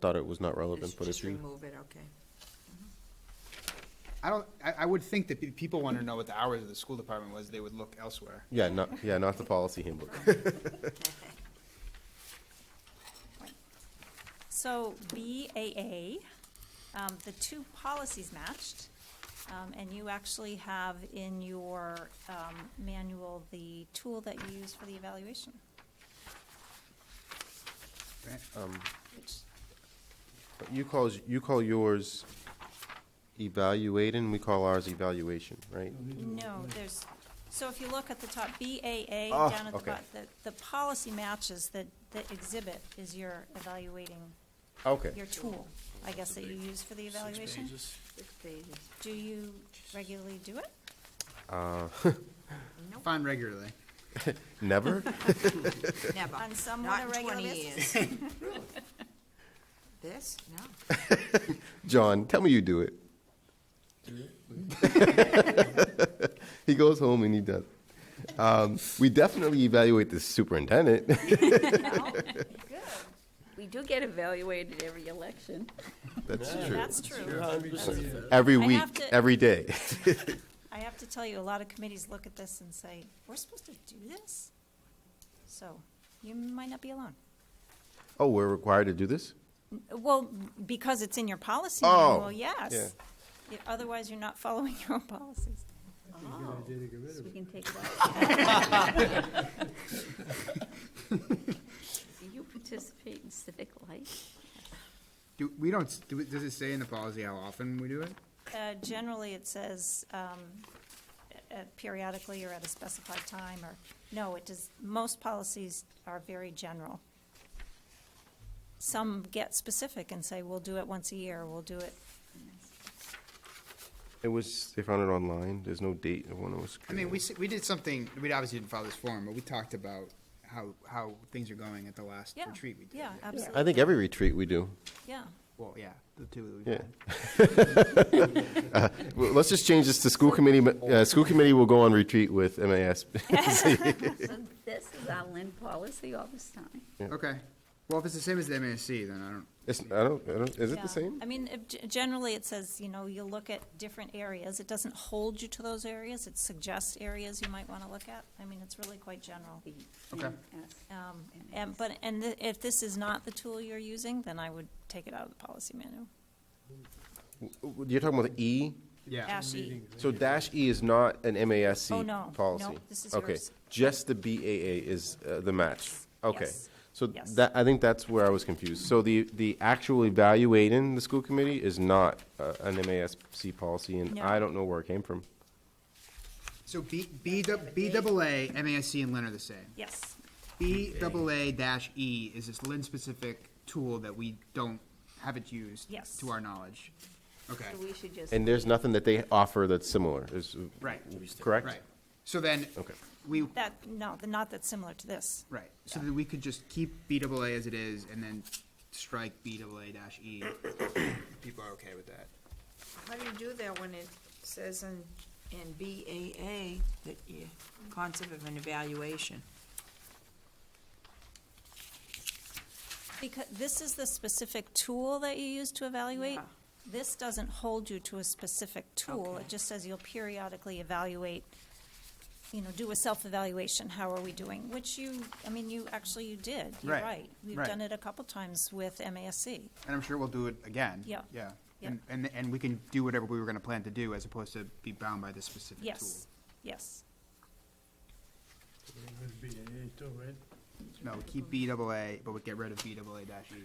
thought it was not relevant, Just but if just you, remove it, okay. I don't, I, I would think that if people want to know what the hours of the school department was, they would look elsewhere. yeah, not, yeah, not the policy handbook. So BAA, um, the two policies matched, um, and you actually have in your, um, manual the tool that you use for the evaluation, right? which, But You calls, you call yours evaluating, we call ours evaluation, right? no, there's, so if you look at the top, BAA, Ah, down at the okay. bottom, the, the policy matches, the, the exhibit is your evaluating, Okay. your tool, I guess, that you use for the evaluation. Six pages. Do you regularly do it? Fine regularly. Never? Never. On Uh, somewhat Not in irregular twenty basis. years. This? No. John, tell me you do it. He goes home and he does. it. Um, we definitely evaluate the superintendent. We do get evaluated every election. That's true. That's true. Every I have week, to- every day. I have to tell you, a lot of committees look at this and say, we're supposed to do this? So you might not be alone. Oh, we're required to do this? Well, because it's in your policy Oh, manual, yes. Yeah, Otherwise, you're not following your own policies. So we can take it Do you participate in civic life? Do, we don't, s- do, we- does it say in the policy how often we do it? Uh, Generally, it says um, uh, periodically or at a specified time, or, no, it does, most policies are very general. Some get specific and say, we'll do it once a year, we'll do it It was, they found it online. There's no date of when it was. I mean, we, s- we did something, we obviously didn't follow this forum, but we talked about how, how things are going at the last Yeah, retreat we did. yeah, I absolutely, think every retreat we do. yeah. Well, yeah, the two that we've Yeah. had. Uh, Well, let's just change this to school committee. but, Uh, school committee will go on retreat with MAS. So this is our Lynn policy all this time. Okay. Well, if it's the same as the MASC, then I don't, It's, I don't, I don't, is it Yeah. the same? I mean, if g- generally, it says, you know, you look at different areas. It doesn't hold you to those areas. It suggests areas you might want to look at. I mean, it's really quite general. The Okay. NS. Um, And, but, and th- if this is not the tool you're using, then I would take it out of the policy manual. You're talking about the E? yeah. Dash E. So dash E is not an MASC Oh, no. policy? No, this is Okay, yours. just the BAA is uh, the match? Okay. Yes. So Yes. that, I think that's where I was confused. So the, the actual evaluating the school committee is not uh, an MASC policy, and No. I don't know where it came from. So B, B, dou- B double A, MASC and Lynn are the same. Yes, B double E A dash E is this Lynn-specific tool that we don't, haven't used. Yes. To our knowledge. Okay. So we should just. And there's nothing that they offer that's similar, is, Right. correct? Right. So then, Okay. we, that, no, the- not that's similar to this. right, so that we could just keep B double A as it is and then strike B double A dash E. People are okay with that. How do you do that when it says in, in BAA that you, concept of an evaluation? Because this is the specific tool that you use to evaluate. Yeah. This doesn't hold you to a specific tool. Okay. It just says you'll periodically evaluate, you know, do a self-evaluation. How are we doing? Which you, I mean, you, actually you did. You're Right, right. We've right. done it a couple times with MASC. And I'm sure we'll do it again. Yeah. Yeah. Yeah. And, and, and we can do whatever we were gonna plan to do as opposed to be bound by this specific tool. Yes, yes. Would be an eight, all right? No, we keep B double A, but we get rid of B double A dash E.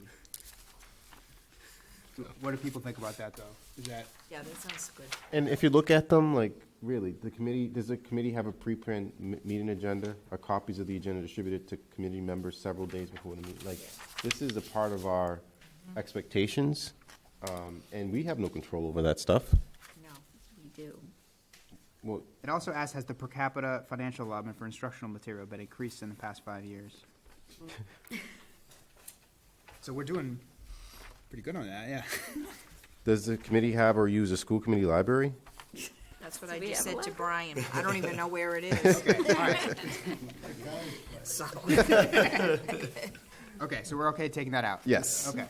What do people think about that, though? Is that, Yeah, that sounds good. And if you look at them, like, really, the committee, does the committee have a pre-print m- meeting agenda? Are copies of the agenda distributed to committee members several days before the meeting? Like, this is a part of our expectations, um, and we have no control over that stuff. No. We do. Well, it also asks, has the per capita financial allotment for instructional material been increased in the past five years? So we're doing pretty good on that, yeah. does the committee have or use a school committee library? That's what So I we just have said a to letter. Brian. I don't even know where it is. So, Okay, so we're okay taking that out? Yes. Okay.